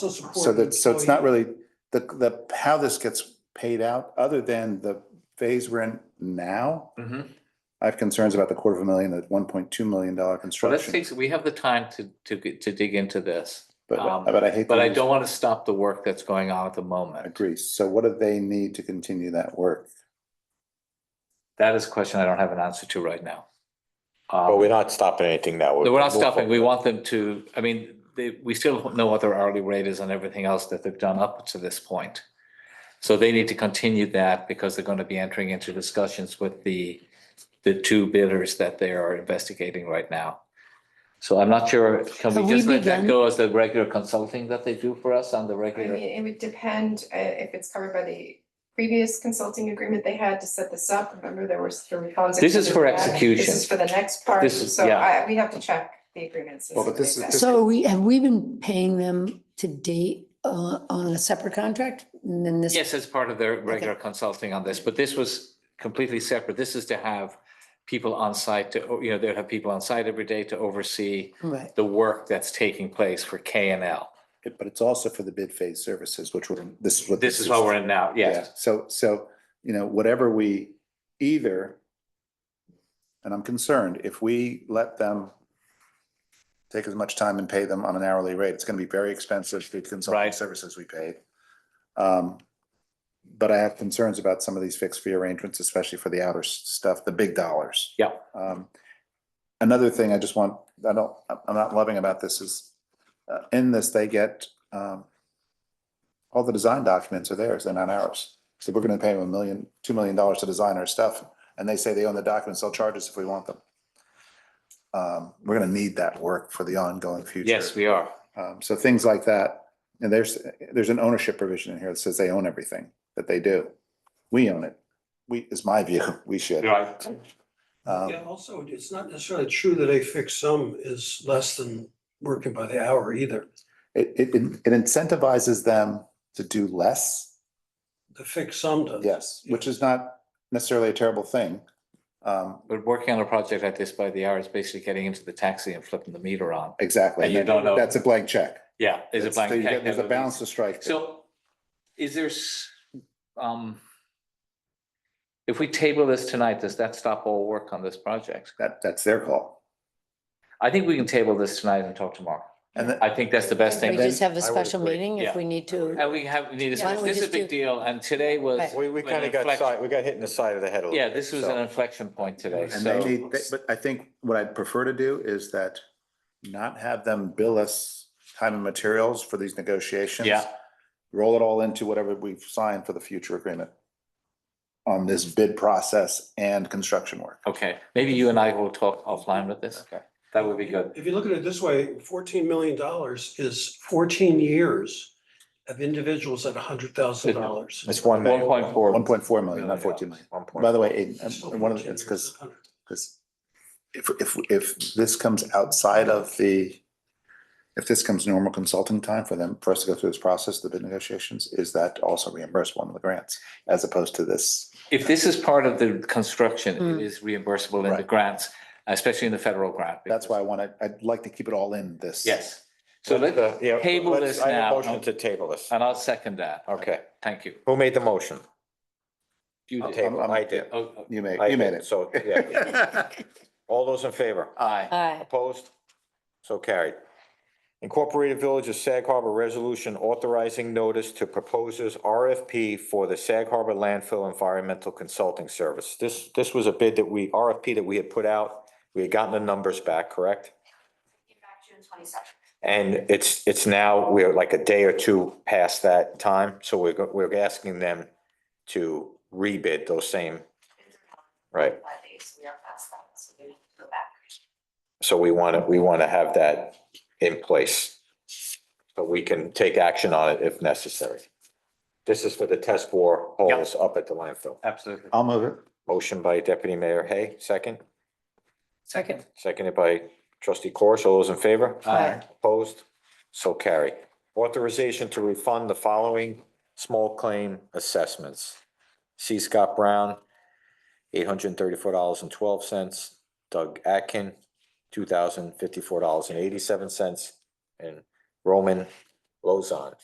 still support. So the that, so it's employee. not really, the, the, how this gets paid out, other than the phase we're in now. Mhm. I have concerns about the quarter of a million, the one point two million dollar Well, let's construction, take, we have the time to, to, get- to dig into this, but, um, but I hate. to but I lose- don't want to stop the work that's going on at the I moment. Agree. So what do they need to continue that work? That is a question I don't have an answer to right now. But Um, we're not stopping anything that would. no, we're not stopping. We want them to, I mean, they, we still don't know what their hourly rate is and everything else that they've done up to this point. So they need to continue that because they're going to be entering into discussions with the, the two bidders that they are investigating right now. So I'm not sure, can Have we we just let that begun? go as the regular consulting that they do for us on the I mean, regular? it would depend uh, if it's covered by the previous consulting agreement they had to set this up. Remember, there was the refunds. This is for that. execution. This is for the next part, This is- so yeah. I, we have to check the agreements. Well, but this is- exactly. So we, have we been paying them to date uh, on a separate contract? And then this, Yes, as part of their regular consulting on this, but this was completely separate. This is to have people on site to, you know, they'd have people on site every day to oversee right, the work that's taking place for K and L. It- But it's also for the bid phase services, which we're, this is what. This is what we're in now, Yeah, yes. so, so, you know, whatever we either, and I'm concerned, if we let them take as much time and pay them on an hourly rate, it's gonna be very expensive for the consulting Right. services we paid. Um, But I have concerns about some of these fixed fee arrangements, especially for the outer s- stuff, the big dollars. Yeah. Um, Another thing I just want, I don't, I'm- I'm not loving about this is, uh, in this, they get, um, all the design documents are theirs, they're not ours. So we're gonna pay them a million, two million dollars to design our stuff, and they say they own the documents, they'll charge us if we want them. Um, we're gonna need that work for the ongoing future. Yes, we are. Um, so things like that, and there's, there's an ownership provision in here that says they own everything that they do. We own it. We, is my view, we should. Right. Um, Yeah, also, it's not necessarily true that a fixed sum is less than working by the hour either. It, it, it incentivizes them to do less, The fixed sum does. yes, which is not necessarily a terrible thing. Um, But working on a project like this by the hour is basically getting into the taxi and flipping the meter on. exactly. And you don't know- That's a blank check. Yeah. Is it That's- so blank? you check get- There's a nevertheless? balance to strike. there. So is there, s- um, if we table this tonight, does that stop all work on this project? That, that's their call. I think we can table this tonight and talk tomorrow. And then, I think that's the best we thing. just have I a would special agree, meeting yeah. if we need to. And we have, we need, Why to- don't we this is a just big do- deal, and today was. We, we an kind of got inflection- side, we got hit in the side of the head a little. Yeah, bit, this was so. an inflection point today, and they so. need, they- but I think what I'd prefer to do is that not have them bill us time and materials for these negotiations. Yeah. Roll it all into whatever we've signed for the future agreement on this bid process and construction work. Okay, maybe you and I will talk offline with this. Okay. That would be good. If you look at it this way, fourteen million dollars is fourteen years of individuals at hundred thousand dollars. It's one. One point four. One point four million, not fourteen million. One By point. the way, Aiden, one of the, it's because Because if, if, if this comes outside of the, if this comes normal consulting time for them, for us to go through this process, the bid negotiations, is that also reimbursed one of the grants as opposed to this? If this is part of the construction, Mm. it is reimbursable in the Right. grants, especially in the federal grant. That's why I because- want to, I'd like to keep it all in this. Yes, so Let's, let, uh, yeah, table let's- this I have a now. Motion to table this. and I'll second that. Okay. Thank you. Who made the motion? You did. Table, I'm- I did. Oh, oh, You made, I you made did, it. So, yeah. All those in favor? Aye, Aye. Opposed? So carried. Incorporated Village of Sag Harbor Resolution authorizing notice to proposers RFP for the Sag Harbor landfill environmental consulting service. This, this was a bid that we, RFP that we had put out. We had gotten the numbers back, correct? And it's, it's now, we're like a day or two past that time, so we're, go- we're asking them to rebid those same, right? So we want to, we want to have that in place. But we can take action on it if necessary. This is for the test bore holes up at the landfill. absolutely. I'll move it. Motion by Deputy Mayor Hay, second, Second. seconded by Trustee Corish. All those in favor? Aye. Opposed? So carry. Authorization to refund the following small claim assessments. C. Scott Brown, eight hundred and thirty-four dollars and twelve cents. Doug Atkin, two thousand fifty-four dollars and eighty-seven cents. And Roman Lozon.